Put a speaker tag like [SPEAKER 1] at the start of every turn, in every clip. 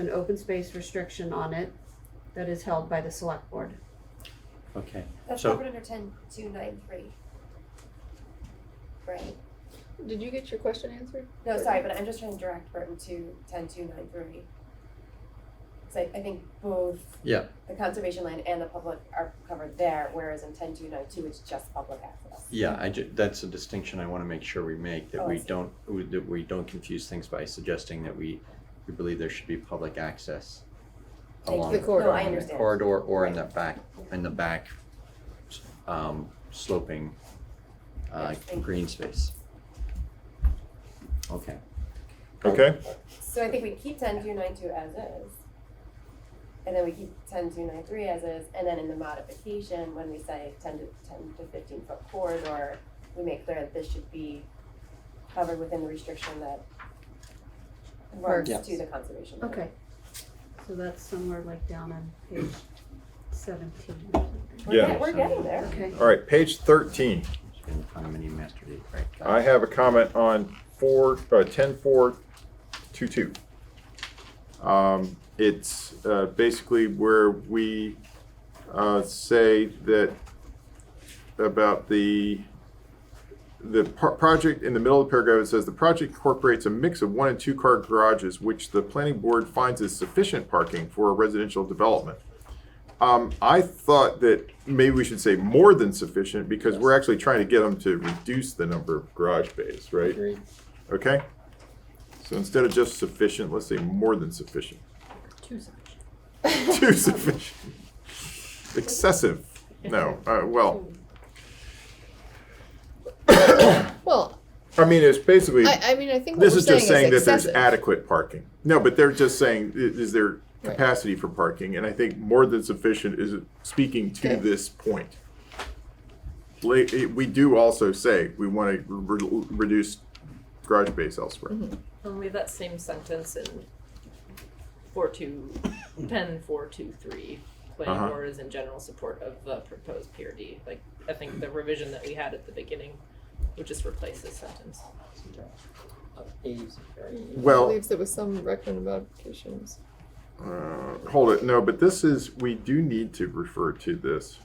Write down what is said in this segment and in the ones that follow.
[SPEAKER 1] an open space restriction on it that is held by the select board.
[SPEAKER 2] Okay,
[SPEAKER 3] That's
[SPEAKER 2] So-
[SPEAKER 3] covered under ten two nine three. Right,
[SPEAKER 4] Did you get your question answered?
[SPEAKER 3] no, sorry, but I'm just trying to direct Burton to ten two nine three. Cause I, I think both
[SPEAKER 2] yeah,
[SPEAKER 3] the conservation land and the public are covered there, whereas in ten two nine two, it's just public access.
[SPEAKER 2] yeah, I ju- that's a distinction I wanna make sure we make, that
[SPEAKER 3] Oh, I
[SPEAKER 2] we
[SPEAKER 3] see.
[SPEAKER 2] don't, we- that we don't confuse things by suggesting that we, we believe there should be public access
[SPEAKER 3] Thank
[SPEAKER 2] along
[SPEAKER 3] you.
[SPEAKER 2] the
[SPEAKER 3] No, I
[SPEAKER 2] corridor, along the
[SPEAKER 3] understand.
[SPEAKER 2] corridor or in the back, in the back um sloping uh
[SPEAKER 3] Yes, thank you.
[SPEAKER 2] green space. Okay,
[SPEAKER 5] Okay,
[SPEAKER 3] So I think we keep ten two nine two as is. And then we keep ten two nine three as is, and then in the modification, when we say ten to ten to fifteen foot corridor, we make clear that this should be covered within the restriction that runs
[SPEAKER 2] Works.
[SPEAKER 3] to the conservation. area.
[SPEAKER 1] Okay. So that's somewhere like down on page seventeen or something.
[SPEAKER 3] We're
[SPEAKER 5] Yeah.
[SPEAKER 3] get- We're getting there.
[SPEAKER 1] Okay,
[SPEAKER 5] all right, page thirteen.
[SPEAKER 2] so in the condominium master deed, right? got
[SPEAKER 5] I
[SPEAKER 2] it.
[SPEAKER 5] have a comment on four, uh, ten four two two. Um, it's, uh, basically where we, uh, say that about the, the par- project, in the middle of the paragraph, it says, "The project incorporates a mix of one and two-car garages, which the planning board finds is sufficient parking for a residential development." Um, I thought that maybe we should say more than sufficient, because we're actually trying to get them to reduce the number of garage bays, right?
[SPEAKER 2] Agreed.
[SPEAKER 5] Okay? So instead of just sufficient, let's say more than sufficient.
[SPEAKER 1] two sections.
[SPEAKER 5] Too sufficient. Excessive. No, uh, well,
[SPEAKER 4] Well,
[SPEAKER 5] I mean, it's basically,
[SPEAKER 4] I, I mean, I think what
[SPEAKER 5] this
[SPEAKER 4] we're
[SPEAKER 5] is just saying that there's
[SPEAKER 4] excessive.
[SPEAKER 5] adequate parking. No, but they're just saying, i- is there capacity for parking? And I think more than sufficient is speaking to
[SPEAKER 4] Okay.
[SPEAKER 5] this point. Late, it- we do also say we want to re- reduce garage space elsewhere.
[SPEAKER 4] Mm-hmm.
[SPEAKER 6] Well, we have that same sentence in four two, ten four two three. Planning
[SPEAKER 5] Uh-huh.
[SPEAKER 6] board is in general support of the proposed PRD. Like, I think the revision that we had at the beginning would just replace this sentence.
[SPEAKER 5] Well,
[SPEAKER 4] Leaves it with some recommended modifications.
[SPEAKER 5] Uh, hold it. No, but this is we do need to refer to this.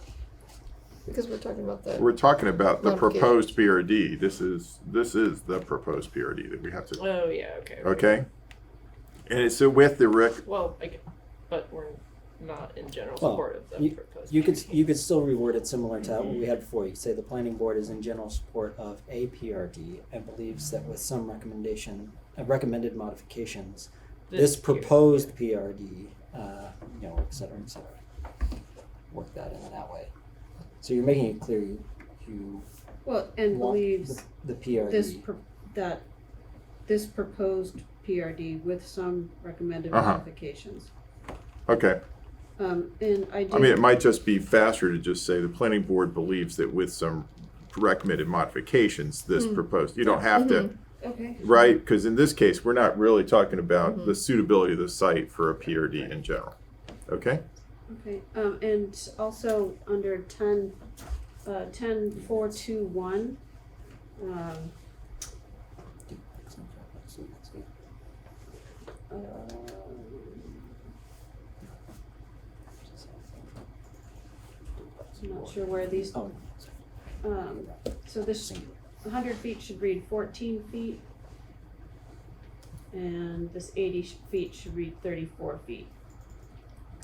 [SPEAKER 4] Because we're talking about the
[SPEAKER 5] We're talking about the
[SPEAKER 4] Not
[SPEAKER 5] proposed PRD. This is this is the proposed PRD that we have to.
[SPEAKER 6] Oh, yeah, okay.
[SPEAKER 5] Okay. And it's so with the rec.
[SPEAKER 6] Well, I, g- but we're not in general
[SPEAKER 7] Well,
[SPEAKER 6] support of the proposed.
[SPEAKER 7] You could, you could still reword it similar to what we had before. You could say the planning board is in general support of a PRD and believes that with some recommendation, uh, recommended modifications, this
[SPEAKER 6] PRD.
[SPEAKER 7] proposed PRD, uh, you know, et cetera, et cetera. Work that in that way. So you're making it clear you, you
[SPEAKER 1] Well, and
[SPEAKER 7] want
[SPEAKER 1] believes
[SPEAKER 7] the, the
[SPEAKER 1] this,
[SPEAKER 7] PRD.
[SPEAKER 1] pro- that, this proposed PRD with some recommended
[SPEAKER 5] Uh-huh.
[SPEAKER 1] modifications.
[SPEAKER 5] Okay.
[SPEAKER 1] Um, and I
[SPEAKER 5] I mean, it
[SPEAKER 1] do,
[SPEAKER 5] might just be faster to just say the planning board believes that with some recommended modifications, this proposed. You don't have to,
[SPEAKER 1] Mm-hmm. okay,
[SPEAKER 5] right? Because in this case, we're not really talking about the suitability of the site for a PRD in general. Okay.
[SPEAKER 1] okay, um, and also under ten, uh, ten four two one, um, Uh, I'm not sure where these,
[SPEAKER 7] Oh,
[SPEAKER 1] um, so this,
[SPEAKER 7] singular.
[SPEAKER 1] hundred feet should read fourteen feet. And this eighty sh- feet should read thirty-four feet.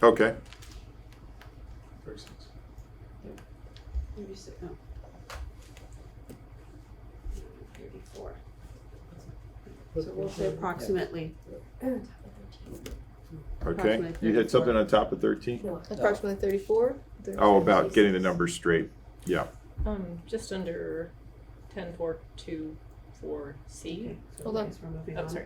[SPEAKER 5] Okay.
[SPEAKER 1] Maybe si- no. oh. Thirty-four. So we'll say approximately,
[SPEAKER 5] Okay,
[SPEAKER 1] Approximately
[SPEAKER 5] you had something
[SPEAKER 1] 34.
[SPEAKER 5] on top of thirteen?
[SPEAKER 3] No,
[SPEAKER 4] approximately 34.
[SPEAKER 5] Oh, about getting the numbers straight. Yeah,
[SPEAKER 6] Um, just under ten four two four C.
[SPEAKER 1] okay, so
[SPEAKER 4] Hold on.
[SPEAKER 1] I guess we're moving on.
[SPEAKER 6] I'm Oh, sorry.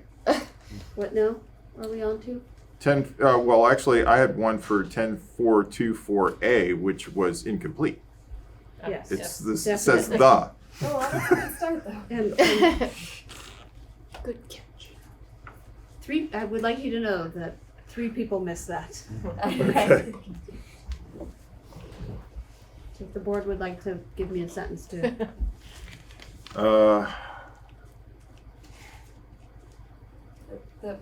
[SPEAKER 1] What now? Are we on to?
[SPEAKER 5] ten, uh, well, actually, I had one for ten four two four A, which was incomplete.
[SPEAKER 6] Uh,
[SPEAKER 1] Yes.
[SPEAKER 5] It's,
[SPEAKER 6] yes.
[SPEAKER 5] this says
[SPEAKER 1] Definitely.
[SPEAKER 3] Oh,
[SPEAKER 5] the,
[SPEAKER 3] well, that's a good start though.
[SPEAKER 1] And, and
[SPEAKER 4] Good catch.
[SPEAKER 1] three, I would like you to know that three people missed that.
[SPEAKER 5] okay,
[SPEAKER 1] If the board would like to give me a sentence to
[SPEAKER 5] uh,
[SPEAKER 3] The